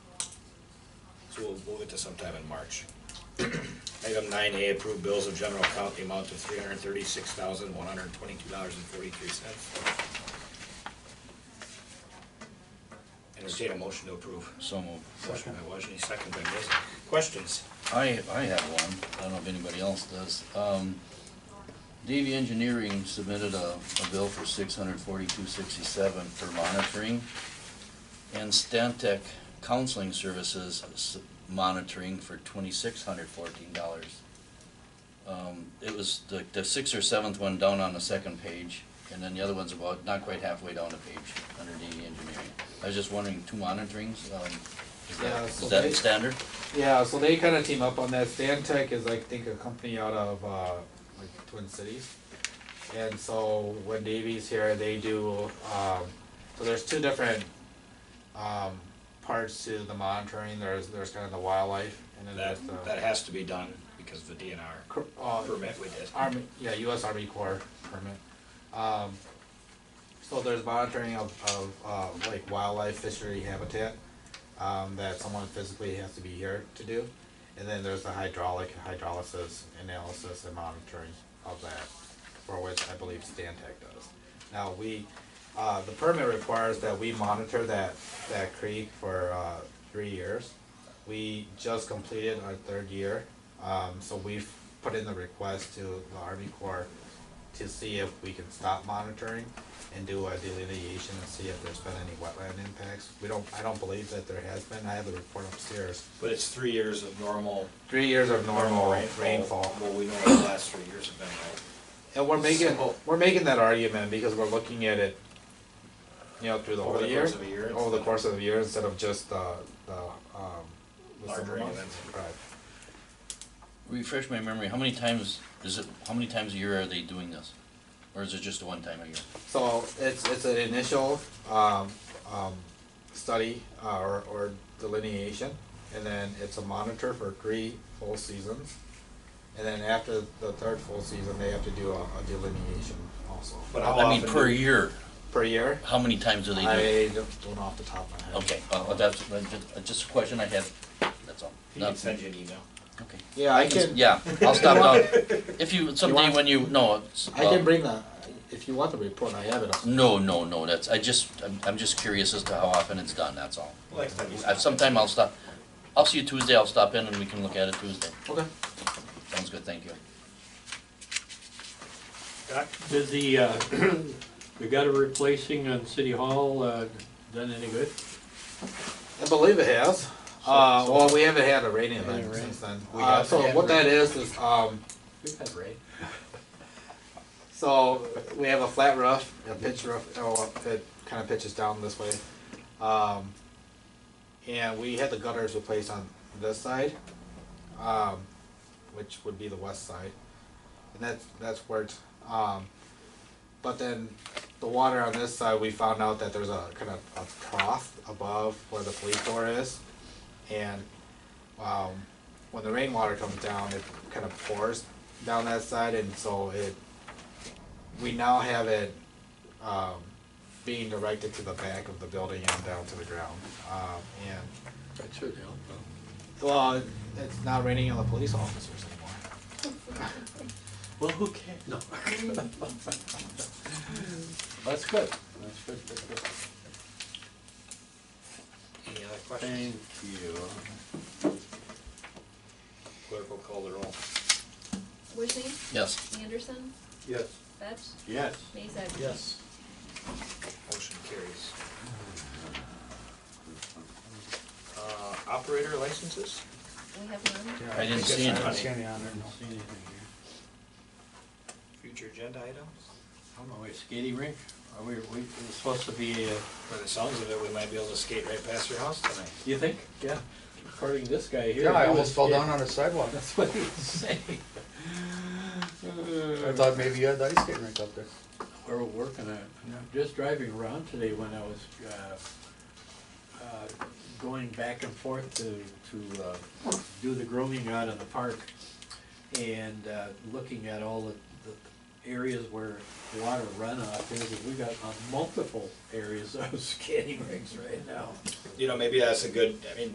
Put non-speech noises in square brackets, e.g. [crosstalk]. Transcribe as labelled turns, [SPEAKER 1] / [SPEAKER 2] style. [SPEAKER 1] So we'll move it to sometime in March. [clears throat] Item nine A, approve bills of general account, the amount of three hundred thirty-six thousand, one hundred twenty-two dollars and forty-three cents. Entertain a motion to approve.
[SPEAKER 2] So moved.
[SPEAKER 1] Motion by Wajni, second by Mason. Questions?
[SPEAKER 2] I, I have one, I don't know if anybody else does. Um, DV Engineering submitted a, a bill for six hundred forty-two sixty-seven for monitoring. And Stantec Counseling Services s- monitoring for twenty-six hundred fourteen dollars. Um, it was the, the sixth or seventh one down on the second page, and then the other one's about, not quite halfway down the page, under DV Engineering. I was just wondering, two monitorings, um, is
[SPEAKER 3] Yeah,
[SPEAKER 2] that,
[SPEAKER 3] so
[SPEAKER 2] is
[SPEAKER 3] they-
[SPEAKER 2] that standard?
[SPEAKER 3] Yeah, so they kind of team up on that. Stantec is, I think, a company out of uh, like Twin Cities, and so when Davies here, they do. Um, so there's two different um, parts to the monitoring. There's there's kind of the wildlife, and then
[SPEAKER 1] That,
[SPEAKER 3] there's
[SPEAKER 2] uh,
[SPEAKER 3] the
[SPEAKER 1] that has to be done because of the DNR
[SPEAKER 3] cr- uh,
[SPEAKER 1] permit we did.
[SPEAKER 3] Army, yeah, U.S. Army Corps permit. Um, so there's monitoring of, of uh, like wildlife, fishery habitat um, that someone physically has to be here to do, and then there's the hydraulic hydrolysis analysis and monitoring of that, for which I believe Stantec does. Now we, uh, the permit requires that we monitor that that creek for uh, three years. We just completed our third year, um, so we've put in the request to the Army Corps to see if we can stop monitoring and do a delineation and see if there's been any wetland impacts. We don't, I don't believe that there has been, I have the report upstairs.
[SPEAKER 1] But it's three years of normal.
[SPEAKER 3] Three years of normal rainfall.
[SPEAKER 1] Well, we know what the last three years have been like.
[SPEAKER 3] And we're making, we're making that argument because we're looking at it, you know, through the
[SPEAKER 1] Over
[SPEAKER 3] whole
[SPEAKER 1] the
[SPEAKER 3] year.
[SPEAKER 1] course of a year
[SPEAKER 3] Over the
[SPEAKER 1] instead
[SPEAKER 3] course of the year instead of just the, the, um. the
[SPEAKER 1] Larger
[SPEAKER 3] summer months.
[SPEAKER 1] events.
[SPEAKER 3] Right.
[SPEAKER 2] Refresh my memory, how many times is it, how many times a year are they doing this? Or is it just a one time a year?
[SPEAKER 3] So it's it's an initial um, um, study uh, or, or delineation, and then it's a monitor for three full seasons, and then after the third full season, they have to do a, a delineation also
[SPEAKER 1] But how
[SPEAKER 2] I mean,
[SPEAKER 1] often
[SPEAKER 2] per
[SPEAKER 1] do-
[SPEAKER 2] year,
[SPEAKER 3] per year.
[SPEAKER 2] how many times do they do? it?
[SPEAKER 3] I don't, don't know off the top of my head.
[SPEAKER 2] Okay, uh, well, that's, that's just- that's just a question I had, that's all.
[SPEAKER 1] He can
[SPEAKER 2] Not-
[SPEAKER 1] send you an email.
[SPEAKER 2] Okay.
[SPEAKER 3] Yeah, I can.
[SPEAKER 2] Yeah, I'll stop down, if you, someday
[SPEAKER 3] want-
[SPEAKER 2] when you, no, it's.
[SPEAKER 3] I
[SPEAKER 2] uh,
[SPEAKER 3] can bring the. If you want the report, I have it. up.
[SPEAKER 2] No, no, no, that's, I just, I'm, I'm just curious as to how often it's done, that's all.
[SPEAKER 1] Next time you
[SPEAKER 2] Uh,
[SPEAKER 1] stop.
[SPEAKER 2] Sometime I'll stop, I'll see you Tuesday, I'll stop in and we can look at it Tuesday.
[SPEAKER 3] Okay.
[SPEAKER 2] Sounds good, thank you.
[SPEAKER 1] Doc?
[SPEAKER 4] Did the, uh, [clears throat] the gutter replacing on City Hall, uh, done any good?
[SPEAKER 3] I believe it has. Uh, well, we haven't had a rain event
[SPEAKER 4] rain.
[SPEAKER 3] since then.
[SPEAKER 1] We
[SPEAKER 3] uh,
[SPEAKER 1] have
[SPEAKER 3] so
[SPEAKER 1] had
[SPEAKER 3] what
[SPEAKER 1] rain.
[SPEAKER 3] that is is um,
[SPEAKER 4] We've had rain.
[SPEAKER 3] [laughs] So we have a flat roof, a pitch roof. Oh, it kind of pitches down this way. Um, and we had the gutters replaced on this side, um, which would be the west side, and that's that's where. It's, um, but then the water on this side, we found out that there's a kind of a trough above where the police door is, and um, when the rainwater comes down, it kind of pours down that side, and so it we now have it um, being directed to the back of the building and down to the ground. Um, and
[SPEAKER 4] That should help.
[SPEAKER 3] well, it's not raining on the police officers anymore.
[SPEAKER 4] Well, who cares? No. That's good. That's good, good, good.
[SPEAKER 1] Any other questions?
[SPEAKER 4] Thank you.
[SPEAKER 1] Clerk will call the roll.
[SPEAKER 5] Wishing,
[SPEAKER 2] Yes,
[SPEAKER 5] Anderson,
[SPEAKER 4] Yes.
[SPEAKER 5] Fetch,
[SPEAKER 4] Yes.
[SPEAKER 5] Mazak.
[SPEAKER 4] Yes.
[SPEAKER 1] Motion carries. Uh, Operator licenses?
[SPEAKER 5] We have none.
[SPEAKER 2] I didn't see
[SPEAKER 1] I don't
[SPEAKER 2] anything.
[SPEAKER 1] see any
[SPEAKER 4] on there, don't see anything here.
[SPEAKER 1] Future agenda items?
[SPEAKER 4] I don't know, is skating rink, are we, we, it's supposed to be, uh,
[SPEAKER 1] By the sounds of it, we might be able to skate right past your house tonight.
[SPEAKER 4] you think? Yeah. According to this guy here.
[SPEAKER 6] Yeah, I
[SPEAKER 4] he was
[SPEAKER 6] almost fell
[SPEAKER 4] skating.
[SPEAKER 6] down on the
[SPEAKER 4] [laughs]
[SPEAKER 6] sidewalk.
[SPEAKER 4] That's what he's saying.
[SPEAKER 6] I thought maybe you had the ice skating rink up there.
[SPEAKER 4] Where we're working at, and I'm just driving around today when I was, uh, uh, going back and forth to, to, uh, do the grooming out in the park. And, uh, looking at all the, the areas where water runoff is, and we got [laughs] uh, multiple areas of skating rinks right now.
[SPEAKER 1] You know, maybe that's a good, I mean,